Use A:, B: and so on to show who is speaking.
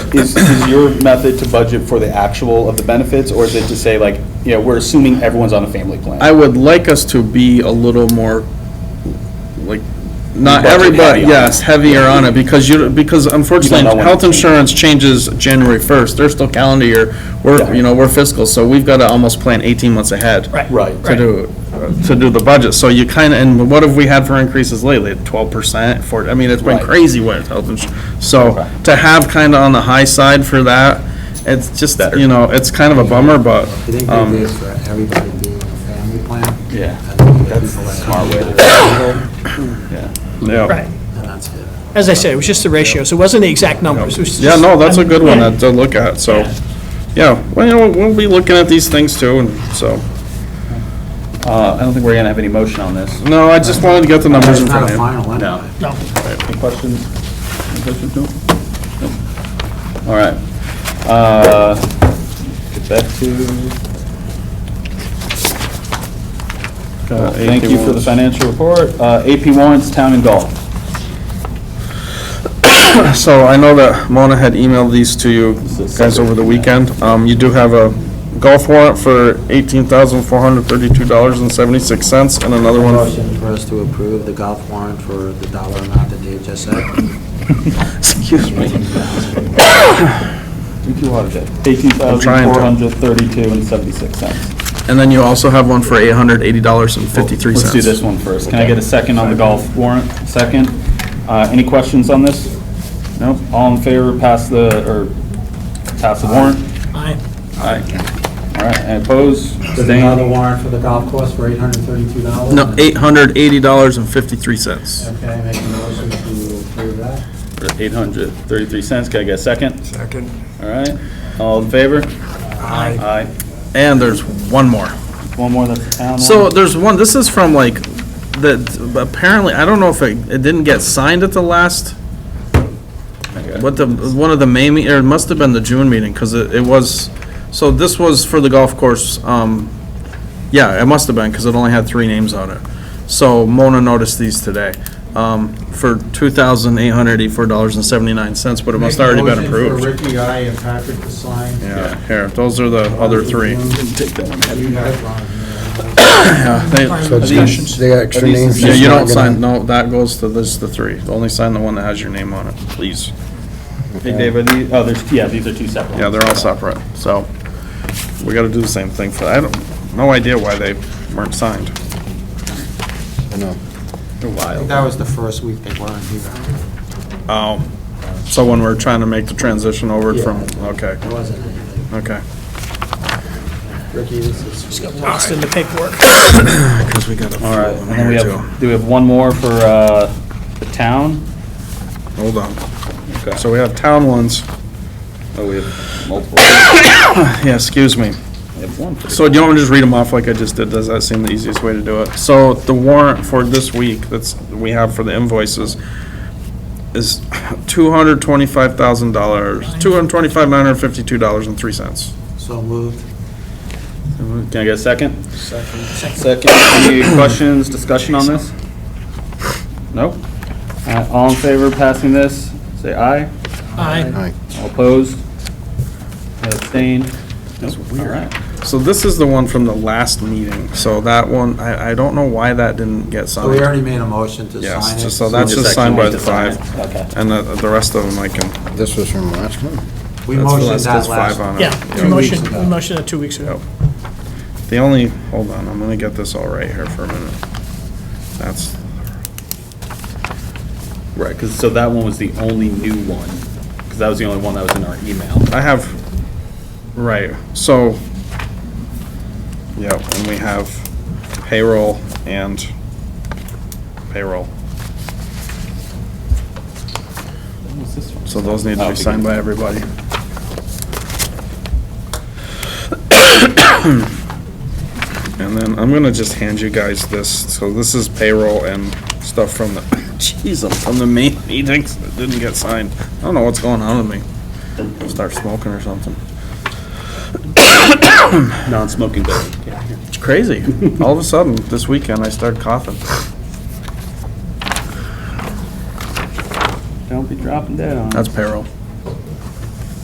A: is, is your method to budget for the actual of the benefits, or is it to say like, you know, we're assuming everyone's on a family plan?
B: I would like us to be a little more, like, not
A: Budget
B: everybody,
A: heavy on it.
B: yes, heavier on it, because you, because
A: know when
B: unfortunately,
A: it
B: health
A: changes.
B: insurance changes January first, they're still calendar year, we're,
A: Yeah.
B: you know, we're fiscal, so we've gotta almost plan eighteen months ahead.
C: Right.
A: Right.
B: To do, to do the budget, so you kinda, and what have we had for increases lately, twelve percent, for, I mean, it's been
A: Right.
B: crazy with health insurance.
A: Okay.
B: So, to have kinda on the high side for that, it's just,
A: Better.
B: you know, it's kind of a bummer, but,
D: I think
B: um,
D: it is for everybody being on a family plan.
A: Yeah.
D: I think the
A: That's
D: people
A: a
D: that
A: smart way to do
D: come
A: Yeah.
B: yeah.
C: Right.
D: And that's it.
C: As I said, it was just the ratio, so it wasn't the exact numbers. it was
B: Yeah,
C: just-
B: no, that's a good one
C: Um,
B: to-
C: Yeah.
B: to look at, so, yeah, well, you know, we'll be looking at these things too, and so,
A: Uh, I don't think we're gonna have any motion on this.
B: no, I just wanted to get the numbers
D: It's
B: in
D: not
B: front
D: a
B: of you.
D: final
A: No.
D: anyway.
C: No.
A: Any questions? Any questions, no? No? All right. Uh, Get back to,
B: Uh,
A: thank you for the
B: AP warrants.
A: financial report. Uh, AP warrants, town and golf.
B: So I know that Mona had emailed these to you
A: This is
B: guys over the
A: separate.
B: weekend. Um, you do have a golf warrant for eighteen thousand four hundred thirty-two dollars and seventy-six cents, and another one.
D: Motion for us to approve the golf warrant for the dollar amount that Dave just said.
B: Excuse me.
A: Thank you, Waterjet. Eighteen thousand, four hundred thirty-two and seventy-six cents.
B: And then you also have one for eight hundred eighty dollars and fifty-three
A: Let's
B: cents.
A: do this one first. Can I get a second on the golf warrant? Second? Uh, Any questions on this? Nope. All in favor, pass the, or pass the warrant?
C: Aye.
A: Aye. All right, and opposed?
D: There's another warrant for the golf course for eight hundred and thirty-two dollars.
B: No, eight hundred eighty dollars and fifty-three cents.
D: Okay, make a motion to approve that.
A: Eight hundred thirty-three cents. Can I get a second? Second. All right. All in favor? Aye. Aye.
B: And there's one more.
A: One more, that's the town one.
B: So there's one, this is from like, that, apparently, I don't know if it, it didn't get signed at the last,
A: Okay.
B: what the, one of the May, me- or it must have been the June meeting, because it, it was, so this was for the golf course, um, yeah, it must have been, because it only had three names on it. So Mona noticed these today, um, for two thousand eight hundred eighty-four dollars and seventy-nine cents, but it must already been
D: Motion
B: approved.
D: for Ricky, I, and Patrick to sign.
B: Yeah, here, those are the other three.
D: You guys want
B: Yeah, they-
E: So it's
A: These-
E: just, they got extra
A: are these-
E: names.
B: Yeah,
E: just
B: you
E: not
B: don't
E: gonna-
B: sign, no, that goes to, this, the three. Only sign the one that has your name on it, please.
A: Hey, Dave, are these, oh, there's, yeah, these are two separate ones.
B: Yeah, they're all separate, so we gotta do the same thing for, I don't, no idea why they weren't signed.
E: I know.
B: They're
D: I think
B: wild.
D: that was the first week they weren't here.
B: Oh, so when we're trying to make the transition over from, okay,
D: There wasn't anything.
B: okay.
D: Ricky, this is.
C: Just got lost in the paperwork.
B: Because we got a few
A: All right,
B: of
A: and
B: them
A: then we
B: here too.
A: have, do we have one more for uh, the town?
B: Hold on. So we have town ones.
A: Oh, we have multiple.
B: Yeah, excuse me.
A: We have one for the-
B: So do you want me to just read them off like I just did? Does that seem the easiest way to do it? So the warrant for this week that's, we have for the invoices is two hundred twenty-five thousand dollars, two hundred twenty-five, nine hundred fifty-two dollars and three cents.
D: So moved.
A: Mm-hmm. Can I get a second? Second. Second. Any questions, discussion on this? Nope. All right, All in favor of passing this, say aye.
C: Aye.
E: Aye.
A: All opposed? Abstained? That's weird.
B: So this is the one from the last meeting. So that one, I, I don't know why that didn't get
D: So we
B: signed.
D: already made a motion to sign it.
B: Yes, just so that's just signed by the five.
A: Okay.
B: And the, the rest of them I can.
E: This was from last month.
D: We
B: that's the
D: motioned
B: last-
D: that
B: there's five
D: last.
B: on it.
C: Yeah,
D: Two
C: we
D: weeks
C: motioned,
D: ago.
C: we motioned it two weeks ago.
B: The only, hold on, I'm gonna get this all right here for a minute. That's,
A: Right, because, so that one was the only new one, because that was the only one that was in our email.
B: I have, right, so, yeah, and we have payroll and payroll.
A: What's this one?
B: So those need to
A: Oh,
B: be signed by everybody. And then I'm gonna just hand you guys this, so this is payroll and stuff from the, jeez, I'm from the main meetings that didn't get signed. I don't know what's going on with me. Start smoking or something.
A: Non-smoking building.
B: It's crazy. All of a sudden, this weekend, I started coughing.
A: Don't be dropping dead on.
B: That's payroll.